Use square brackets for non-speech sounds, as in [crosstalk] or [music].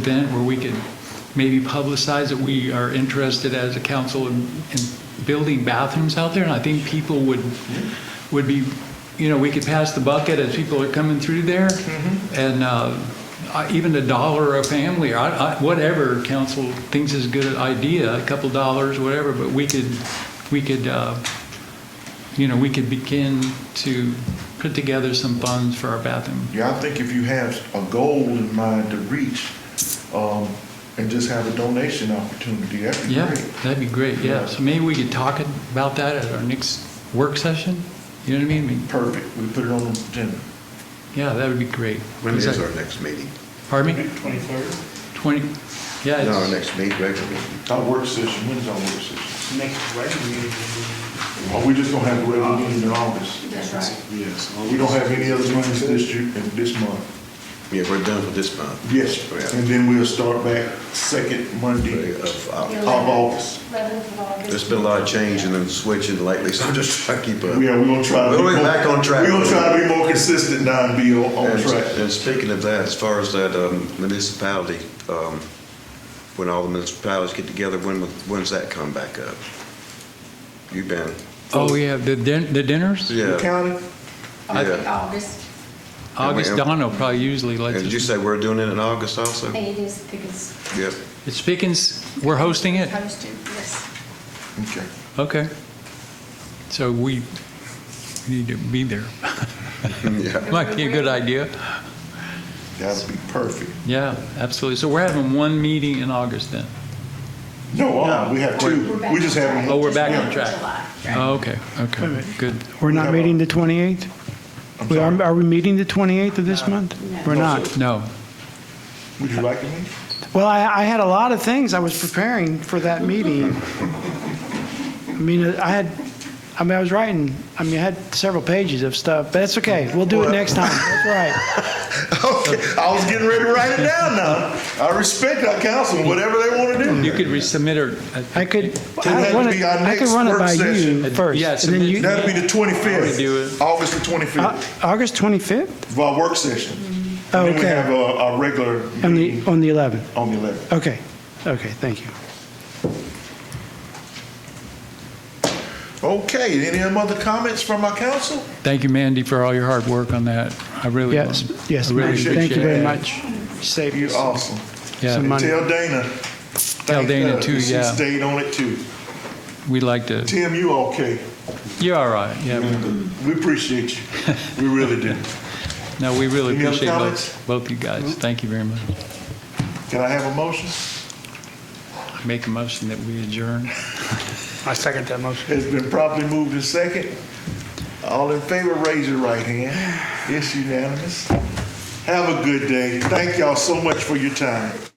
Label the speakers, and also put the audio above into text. Speaker 1: event where we could maybe publicize that we are interested as a council in, in building bathrooms out there, and I think people would, would be, you know, we could pass the bucket as people are coming through there, and uh, I- even a dollar a family, or I- I- whatever council thinks is a good idea, a couple dollars, whatever, but we could, we could, uh, you know, we could begin to put together some funds for our bathroom.
Speaker 2: Yeah, I think if you have a goal in mind to reach, um, and just have a donation opportunity, that'd be
Speaker 1: Yeah,
Speaker 2: great.
Speaker 1: that'd be great, yeah.
Speaker 2: Yeah.
Speaker 1: So maybe we could talk about that at our next work session? You know what I mean? I mean?
Speaker 2: Perfect, we put it on the agenda.
Speaker 1: Yeah, that would be great.
Speaker 3: When
Speaker 1: Is
Speaker 3: is
Speaker 1: that-
Speaker 3: our next meeting?
Speaker 1: Pardon me?
Speaker 4: 23rd,
Speaker 1: 20, yeah,
Speaker 3: No, our
Speaker 1: it's,
Speaker 3: next meeting, regular meeting.
Speaker 2: Our work session, when's our work session?
Speaker 4: next regular meeting. will
Speaker 2: Are Uh, we just gonna have a regular meeting in August?
Speaker 5: That's right.
Speaker 6: Yes.
Speaker 2: We don't have any other meetings this year, in this month?
Speaker 3: Yeah, we're done for this month.
Speaker 2: Yes, and then we'll start back second Monday of
Speaker 3: Of, uh,
Speaker 2: August.
Speaker 5: 11th of August.
Speaker 3: There's been a lot of changing and switching lately, so I'm just trying to keep up.
Speaker 2: We are, we gonna try to. be
Speaker 3: We'll be
Speaker 2: more-
Speaker 3: back on track.
Speaker 2: We gonna try to be more consistent now and be on, on
Speaker 3: And-
Speaker 2: track.
Speaker 3: And speaking of that, as far as that um, municipality, um, when all the municipalities get together, when, when's that come back up? You been,
Speaker 1: oh, yeah, the din- the dinners?
Speaker 3: yeah.
Speaker 2: County,
Speaker 5: I think
Speaker 3: Yeah.
Speaker 5: August,
Speaker 1: August
Speaker 3: And we-
Speaker 1: Dono probably usually lets
Speaker 3: And did you
Speaker 1: us,
Speaker 3: say we're doing it in August also?
Speaker 5: and it is because
Speaker 3: Yep. [laughs]
Speaker 1: it's Pickens, we're hosting it?
Speaker 5: hosted, yes.
Speaker 2: okay.
Speaker 1: Okay. So we need to be there.
Speaker 3: Yeah.
Speaker 1: Might be a good idea.
Speaker 2: That'd be perfect.
Speaker 1: Yeah, absolutely. So we're having one meeting in August then?
Speaker 2: No, uh, we have two,
Speaker 5: We're back
Speaker 2: we just
Speaker 5: on
Speaker 2: have.
Speaker 5: track.
Speaker 1: Oh, we're
Speaker 5: Just
Speaker 1: back
Speaker 5: one
Speaker 1: on
Speaker 5: in
Speaker 1: track.
Speaker 5: July.
Speaker 1: Oh, okay, okay, good.
Speaker 6: We're not meeting the 28th?
Speaker 2: I'm
Speaker 6: We
Speaker 2: sorry.
Speaker 6: are, are we meeting the 28th of this month?
Speaker 5: No.
Speaker 6: We're not.
Speaker 1: No,
Speaker 2: Would you like to meet?
Speaker 6: Well, I, I had a lot of things I was preparing for that meeting. I mean, uh, I had, I mean, I was writing, I mean, I had several pages of stuff, but that's okay. We'll do it next time. That's all right.
Speaker 2: [laughs] Okay, I was getting ready to write it down now. I respect our council, whatever they want to do.
Speaker 1: you could resubmit or. uh,
Speaker 2: [laughs]
Speaker 6: I could,
Speaker 2: Then
Speaker 6: I
Speaker 2: that'd
Speaker 6: run
Speaker 2: be
Speaker 6: it,
Speaker 2: our
Speaker 6: I could
Speaker 2: next
Speaker 6: run it
Speaker 2: work
Speaker 6: by you
Speaker 2: session.
Speaker 6: first.
Speaker 1: Yeah,
Speaker 6: And then
Speaker 1: submit-
Speaker 6: you,
Speaker 2: That'd be the
Speaker 1: Already do it. Uh,
Speaker 2: twenty-fifth, August the
Speaker 6: Au-
Speaker 2: twenty-fifth,
Speaker 6: August 25th?
Speaker 2: for our work session.
Speaker 6: Oh,
Speaker 2: And then we
Speaker 6: okay.
Speaker 2: have a, a regular
Speaker 6: On the,
Speaker 2: meeting
Speaker 6: on the 11th?
Speaker 2: on the eleventh.
Speaker 6: Okay, okay, thank you.
Speaker 2: Okay, any other comments from our council?
Speaker 1: Thank you, Mandy, for all your hard work on that. I really.
Speaker 6: Yes, yes,
Speaker 1: I really
Speaker 6: thank you
Speaker 1: appreciate
Speaker 6: very
Speaker 1: it.
Speaker 6: much. Saved
Speaker 2: You're
Speaker 6: us.
Speaker 2: awesome.
Speaker 6: so
Speaker 1: Yeah,
Speaker 6: much.
Speaker 2: And
Speaker 6: Monday.
Speaker 2: tell Dana.
Speaker 1: Tell
Speaker 2: thank
Speaker 1: Dana
Speaker 2: her
Speaker 1: too,
Speaker 2: that
Speaker 1: yeah.
Speaker 2: She stayed on it too.
Speaker 1: we like to,
Speaker 2: Tim, you okay?
Speaker 1: you're all right. Yeah,
Speaker 2: We appreciate you. We really
Speaker 1: [laughs]
Speaker 2: do.
Speaker 1: no, we really
Speaker 2: Any other
Speaker 1: appreciate
Speaker 2: comments?
Speaker 1: both, both you guys. Thank you very much.
Speaker 2: Can I have a motion?
Speaker 1: Make a motion that we adjourn.
Speaker 4: I second that motion.
Speaker 2: It's been properly moved to second. All in favor, raise your right hand. It's unanimous. Have a good day. Thank y'all so much for your time.